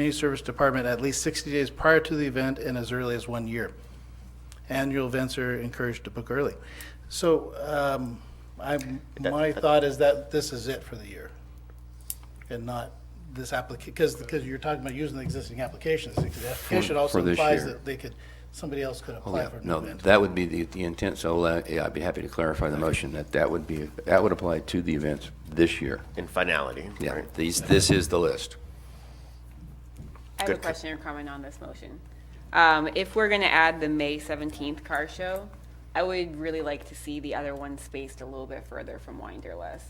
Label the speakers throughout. Speaker 1: Community Service Department at least 60 days prior to the event and as early as one year. Annual events are encouraged to book early. So um, I, my thought is that this is it for the year and not this applica, because, because you're talking about using the existing applications. The application also
Speaker 2: for this
Speaker 1: implies
Speaker 2: year.
Speaker 1: that they could, somebody else could
Speaker 2: Oh,
Speaker 1: apply
Speaker 2: yeah,
Speaker 1: for an
Speaker 2: no,
Speaker 1: event.
Speaker 2: that would be the, the intent, so, uh, yeah, I'd be happy to clarify the motion, that that would be, that would apply to the events this year.
Speaker 3: in finality,
Speaker 2: Yeah,
Speaker 3: right?
Speaker 2: these, this is the list.
Speaker 4: I have a
Speaker 3: Good.
Speaker 4: question or comment on this motion. Um, if we're gonna add the May seventeenth car show, I would really like to see the other one spaced a little bit further from Winderlust.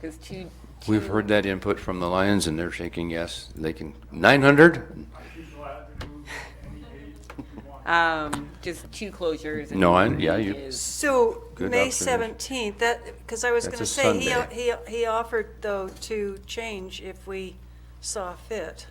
Speaker 4: Cause two.
Speaker 2: We've
Speaker 4: two-
Speaker 2: heard that input from the Lions, and they're shaking yes, they can, nine hundred?
Speaker 4: Um, just two closures. and
Speaker 2: No, I-
Speaker 4: one
Speaker 2: yeah, you-
Speaker 4: is-
Speaker 5: So,
Speaker 2: Good
Speaker 5: May
Speaker 2: observation.
Speaker 5: 17th, that, because I was
Speaker 2: That's
Speaker 5: going to
Speaker 2: a
Speaker 5: say, he,
Speaker 2: Sunday.
Speaker 5: he he offered, though, to change if we saw fit.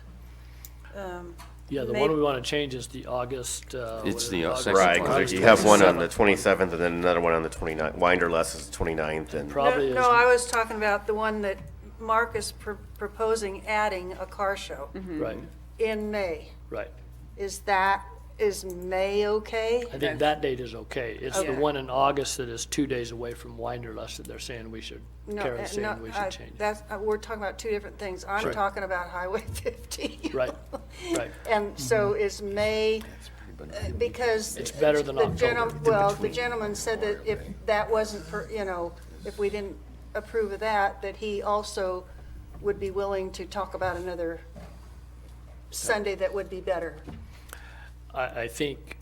Speaker 5: Um,
Speaker 6: Yeah, the
Speaker 5: May-
Speaker 6: one we want to change is the August, uh.
Speaker 2: It's
Speaker 6: what is
Speaker 2: the,
Speaker 6: it,
Speaker 2: uh,
Speaker 6: August
Speaker 2: second
Speaker 3: Right, 'cause
Speaker 2: August
Speaker 3: you have one on the 27th and then another one on the 29th. Winderlust is the 29th and,
Speaker 5: No,
Speaker 6: Probably is.
Speaker 5: no, I was talking about the one that Mark is pr- proposing adding a car show
Speaker 6: Right,
Speaker 5: in May.
Speaker 6: right.
Speaker 5: Is that, is May okay?
Speaker 6: I think that date is okay. It's the
Speaker 4: Okay.
Speaker 6: one in August that is two days away from Winderlust that they're saying we should,
Speaker 5: No, uh,
Speaker 6: Karen's
Speaker 5: no,
Speaker 6: saying we
Speaker 5: I-
Speaker 6: should change.
Speaker 5: That's, uh, we're talking about two different things. I'm
Speaker 6: Sure.
Speaker 5: talking about Highway 50.
Speaker 6: Right, right.
Speaker 5: And so is May, uh, because.
Speaker 6: It's better than
Speaker 5: the gentle-
Speaker 6: October.
Speaker 5: Well, the gentleman said that if that wasn't, for you know, if we didn't approve of that, that he also would be willing to talk about another Sunday that would be better.
Speaker 6: I, I think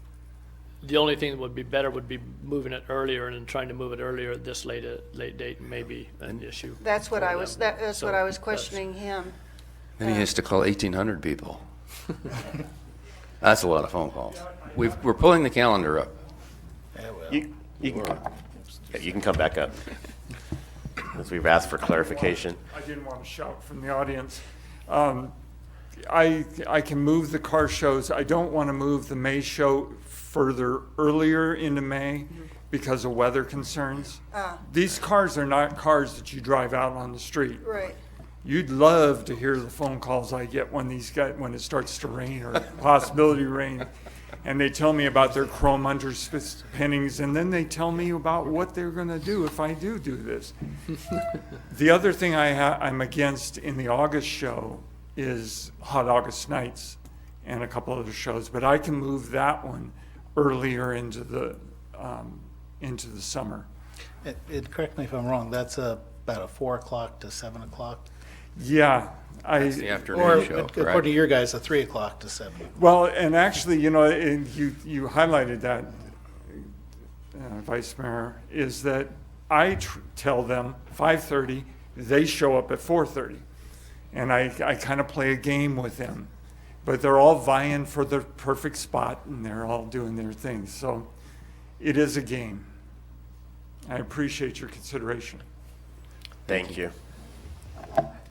Speaker 6: the only thing that would be better would be moving it earlier and then trying to move it earlier at this late, a- late date may be an issue.
Speaker 5: That's what
Speaker 6: for
Speaker 5: I
Speaker 6: them.
Speaker 5: was, that- that's what
Speaker 6: So
Speaker 5: I was
Speaker 6: that's-
Speaker 5: questioning him.
Speaker 2: Then he has to call eighteen hundred people. That's a lot of phone calls. We've, we're pulling the calendar up.
Speaker 3: you, you can, come- yeah, you can come back up. Because we've asked for clarification.
Speaker 7: I didn't want to shout from the audience. Um, I, I can move the car shows. I don't want to move the May show further earlier into May because of weather concerns. These cars are not cars that you drive out on the street.
Speaker 5: Right.
Speaker 7: You'd love to hear the phone calls I get when these guys, when it starts to rain or possibility rain. And they tell me about their chrome underpinnings and then they tell me about what they're gonna do if I do do this. The other thing I ha- I'm against in the August show is Hot August Nights and a couple other shows, but I can move that one earlier into the, um, into the summer.
Speaker 1: And- And correct me if I'm wrong, that's uh, about a 4 o'clock to 7 o'clock?
Speaker 7: Yeah, I.
Speaker 2: The
Speaker 1: Or
Speaker 2: afternoon show,
Speaker 1: according to
Speaker 2: correct?
Speaker 1: your guys, a 3 o'clock to 7.
Speaker 7: Well, and actually, you know, and you, you highlighted that, uh, Vice Mayor, is that I tr- tell them 5:30, they show up at 4:30. And I, I kind of play a game with them. But they're all vying for the perfect spot and they're all doing their thing. So it is a game. I appreciate your consideration.
Speaker 3: Thank you.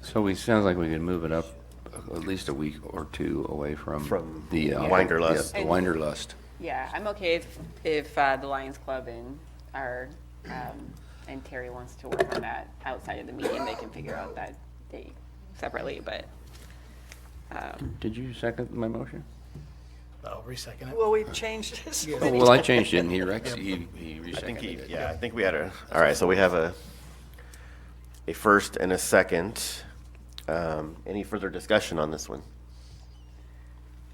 Speaker 2: So we, sounds like we could move it up at least a week or two away from.
Speaker 3: From
Speaker 2: the uh,
Speaker 3: Winderlust.
Speaker 2: yeah, The Winderlust.
Speaker 4: Yeah, I'm okay if, if, uh, the Lions Club and our, um, and Terry wants to work on that outside of the meeting, they can figure out that date separately, but, um,
Speaker 2: Did you second my motion?
Speaker 1: I'll resecond it.
Speaker 5: Well, we've changed this.
Speaker 2: Oh, well, I changed it, and he rec, he, he
Speaker 3: I think, he-
Speaker 2: reseconded it.
Speaker 3: yeah, I think we had a, all right, so we have a, a first and a second. Um, Any further discussion on this one?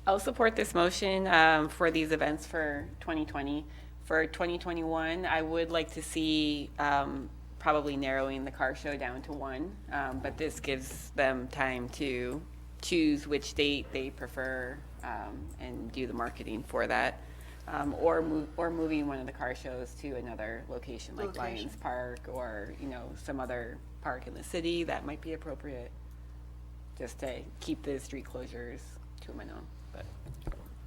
Speaker 4: I'll support this motion um, for these events for 2020. For 2021, I would like to see um, probably narrowing the car show down to one, um, but this gives them time to choose which date they prefer um, and do the marketing for that. Um, Or, move- or moving one of the car shows to another location like
Speaker 5: Location.
Speaker 4: Lions Park or, you know, some other park in the city that might be appropriate, just to keep the street closures to a minimum. but-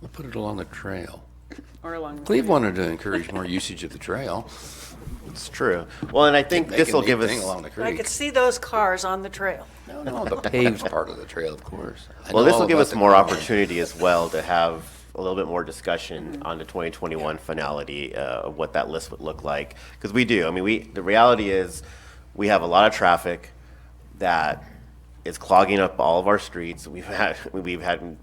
Speaker 2: We'll put it along the trail.
Speaker 4: or along. the
Speaker 2: Cleve
Speaker 4: way.
Speaker 2: wanted to encourage more usage of the trail.
Speaker 3: It's true. Well, and I think
Speaker 2: They
Speaker 3: this
Speaker 2: can
Speaker 3: will
Speaker 2: be
Speaker 3: give us.
Speaker 2: thing Along the
Speaker 5: I could
Speaker 2: creek.
Speaker 5: see those cars on the trail.
Speaker 2: No, no, the paved part of the trail, of course. I
Speaker 3: Well,
Speaker 2: know
Speaker 3: this
Speaker 2: all
Speaker 3: will give
Speaker 2: about
Speaker 3: us
Speaker 2: the
Speaker 3: more
Speaker 2: culvert.
Speaker 3: opportunity as well to have a little bit more discussion on the 2021 finality uh, of what that list would look like. Because we do, I mean, we, the reality is, we have a lot of traffic that it's clogging up all of our streets. We've had, we've had